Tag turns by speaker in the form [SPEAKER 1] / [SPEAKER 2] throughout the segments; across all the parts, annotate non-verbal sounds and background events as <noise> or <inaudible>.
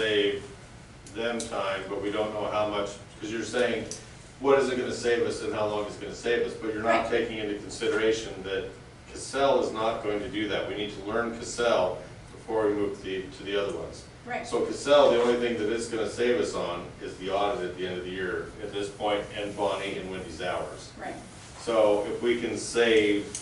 [SPEAKER 1] save them time, but we don't know how much, because you're saying, what is it gonna save us and how long it's gonna save us? But you're not
[SPEAKER 2] Right.
[SPEAKER 1] taking into consideration that Cassell is not going to do that. We need to learn Cassell before we move the, to the other ones.
[SPEAKER 2] Right,
[SPEAKER 1] So Cassell, the only thing that it's gonna save us on is the audit at the end of the year at this point, and Bonnie and Wendy's hours.
[SPEAKER 2] right,
[SPEAKER 1] So if we can save,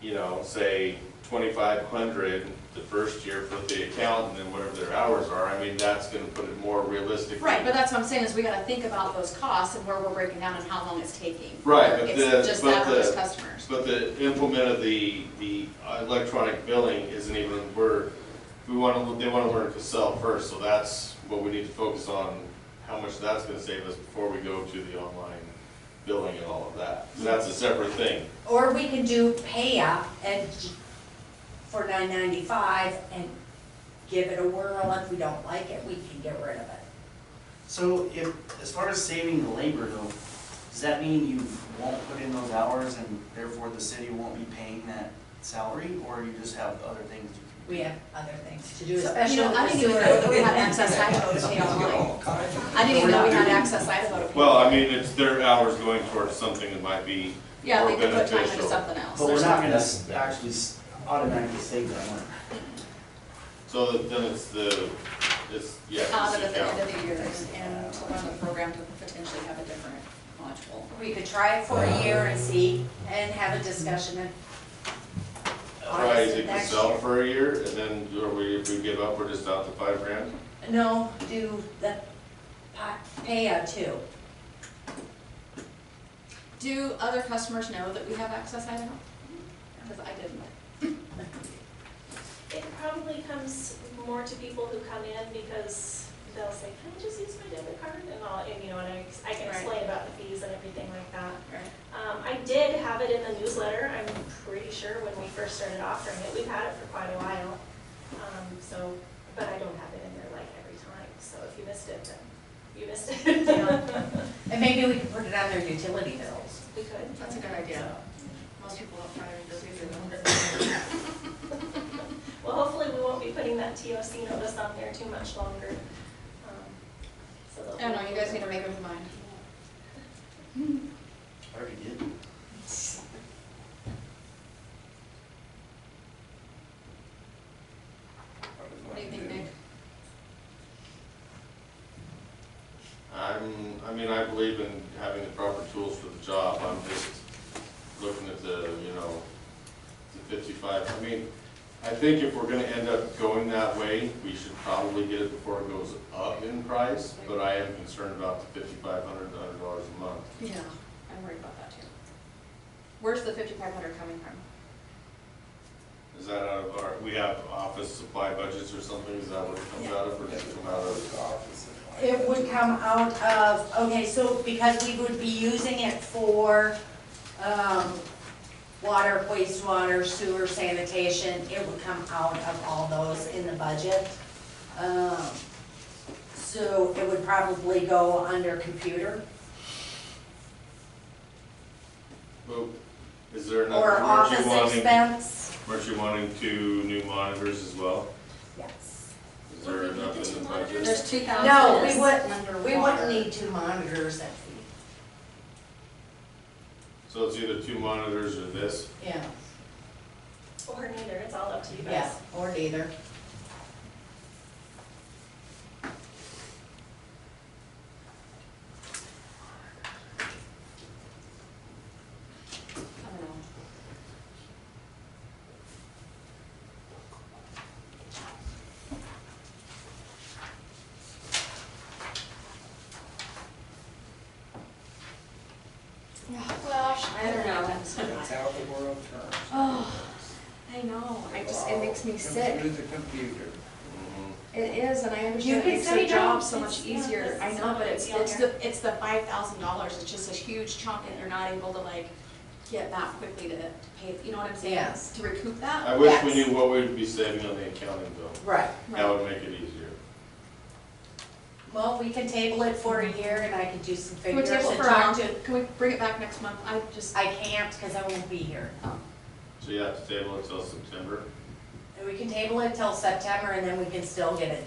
[SPEAKER 1] you know, say twenty-five hundred the first year for the accountant and whatever their hours are, I mean, that's gonna put it more realistically.
[SPEAKER 2] right, but that's what I'm saying, is we gotta think about those costs and where we're breaking down and how long it's taking.
[SPEAKER 1] Right, but
[SPEAKER 2] It's
[SPEAKER 1] the-
[SPEAKER 2] just
[SPEAKER 1] but
[SPEAKER 2] that for
[SPEAKER 1] the-
[SPEAKER 2] those customers.
[SPEAKER 1] But the implement of the, the electronic billing isn't even, we're, we wanna, they wanna learn Cassell first, so that's what we need to focus on, how much that's gonna save us before we go to the online billing and all of that. So That's a separate thing.
[SPEAKER 3] Or we can do pay up and, for nine ninety-five and give it a whirl. If we don't like it, we can get rid of it.
[SPEAKER 4] So if, as far as saving the labor though, does that mean you won't put in those hours and therefore the city won't be paying that salary? Or you just have other things you can do?
[SPEAKER 3] We have other things to do,
[SPEAKER 2] You
[SPEAKER 3] especially
[SPEAKER 2] know, I
[SPEAKER 3] with
[SPEAKER 2] didn't even know that we had access Idaho to pay online. I didn't even know we had access Idaho to pay.
[SPEAKER 1] Well, I mean, it's their hours going towards something that might be
[SPEAKER 2] Yeah,
[SPEAKER 1] more
[SPEAKER 2] they could put time into
[SPEAKER 1] beneficial.
[SPEAKER 2] something else.
[SPEAKER 4] But we're
[SPEAKER 2] There's
[SPEAKER 4] not gonna s- actually s- automatically save that money.
[SPEAKER 1] So that- then it's the, it's, yeah. it's
[SPEAKER 2] Out
[SPEAKER 1] the
[SPEAKER 2] at the end
[SPEAKER 1] account.
[SPEAKER 2] of the year and- and to run the program to potentially have a different module.
[SPEAKER 3] We could try it for a year and see, and have a discussion and.
[SPEAKER 1] Try
[SPEAKER 3] Honestly,
[SPEAKER 1] it
[SPEAKER 3] next
[SPEAKER 1] yourself
[SPEAKER 3] year.
[SPEAKER 1] for a year, and then, or we, if we give up, we're just out to five grand?
[SPEAKER 3] No, do the pa- pay up too.
[SPEAKER 2] Do other customers know that we have access Idaho? Because I didn't.
[SPEAKER 5] It probably comes more to people who come in because they'll say, can I just use my debit card? And I'll, and you know, and I, ex- I can
[SPEAKER 2] Right.
[SPEAKER 5] explain about the fees and everything like that.
[SPEAKER 2] Right.
[SPEAKER 5] Um, I did have it in the newsletter, I'm pretty sure when we first started offering it, we've had it for quite a while. Um, so, but I don't have it in there like every time, so if you missed it, then you
[SPEAKER 2] <laughs>
[SPEAKER 5] missed it.
[SPEAKER 3] And maybe we could put it on their utility bills.
[SPEAKER 5] <laughs> We could.
[SPEAKER 2] That's a good idea. Most people don't probably read those either.
[SPEAKER 5] Well, hopefully we won't be putting that TOC notice on there too much longer. Um, So they'll-
[SPEAKER 2] I don't know, Oh, you guys need to make up your mind.
[SPEAKER 4] I already did.
[SPEAKER 2] What do you think, Nick?
[SPEAKER 1] I'm, I mean, I believe in having the proper tools for the job, I'm just looking at the, you know, the fifty-five, I mean, I think if we're gonna end up going that way, we should probably get it before it goes up in price, but I am concerned about the fifty-five hundred, hundred dollars a month.
[SPEAKER 2] Yeah, I'm worried about that too. Where's the fifty-five hundred coming from?
[SPEAKER 1] Is that out of our, we have office supply budgets or something, is that what it comes out of, or does it come out of?
[SPEAKER 3] It would come out of, okay, so because we would be using it for, um, water, wastewater, sewer, sanitation, it would come out of all those in the budget. Um, so it would probably go under computer
[SPEAKER 1] Well, Is there another,
[SPEAKER 3] or
[SPEAKER 1] weren't
[SPEAKER 3] office
[SPEAKER 1] you wanting,
[SPEAKER 3] expense.
[SPEAKER 1] weren't you wanting two new monitors as well?
[SPEAKER 3] Yes.
[SPEAKER 1] Is there
[SPEAKER 5] Would we
[SPEAKER 1] enough
[SPEAKER 5] need the
[SPEAKER 1] in
[SPEAKER 5] two
[SPEAKER 1] the
[SPEAKER 5] monitors?
[SPEAKER 1] budget?
[SPEAKER 2] There's two thousand.
[SPEAKER 3] No, we wouldn't, we wouldn't need two monitors at the,
[SPEAKER 1] So it's either two monitors or this,
[SPEAKER 3] yeah,
[SPEAKER 5] Or neither, it's all up to you guys.
[SPEAKER 3] yeah, or neither.
[SPEAKER 2] I don't know. Well, I don't know. <laughs>
[SPEAKER 6] That's how the world turns.
[SPEAKER 2] Oh, I know, I just, it makes me sick.
[SPEAKER 6] Computer's a computer.
[SPEAKER 1] Mm-hmm.
[SPEAKER 2] It is, and I
[SPEAKER 3] You
[SPEAKER 2] understand it
[SPEAKER 3] can
[SPEAKER 2] makes their
[SPEAKER 3] say no,
[SPEAKER 2] job so
[SPEAKER 5] it's-
[SPEAKER 2] much
[SPEAKER 5] yeah,
[SPEAKER 2] easier,
[SPEAKER 5] this
[SPEAKER 2] I
[SPEAKER 5] is
[SPEAKER 2] know,
[SPEAKER 5] not
[SPEAKER 2] but
[SPEAKER 5] a
[SPEAKER 2] it's,
[SPEAKER 5] big deal
[SPEAKER 2] it's
[SPEAKER 5] here.
[SPEAKER 2] the, it's the five thousand dollars, it's just a huge chunk and you're not able to like get back quickly to, to pay, you know what I'm saying?
[SPEAKER 3] Yes.
[SPEAKER 2] To recoup that.
[SPEAKER 1] I wish we
[SPEAKER 3] Yes.
[SPEAKER 1] knew what we'd be saving on the accounting bill,
[SPEAKER 3] Right.
[SPEAKER 1] that
[SPEAKER 2] Right.
[SPEAKER 1] would make it easier.
[SPEAKER 3] Well, we can table it for a year and I can do some
[SPEAKER 2] Can we
[SPEAKER 3] figures
[SPEAKER 2] table
[SPEAKER 3] and
[SPEAKER 2] it for now?
[SPEAKER 3] talk to.
[SPEAKER 2] Can we bring it back next month? I just,
[SPEAKER 3] I can't because I won't be here.
[SPEAKER 2] oh,
[SPEAKER 1] So you have to table it till September?
[SPEAKER 3] And we can table it till September and then we can still get it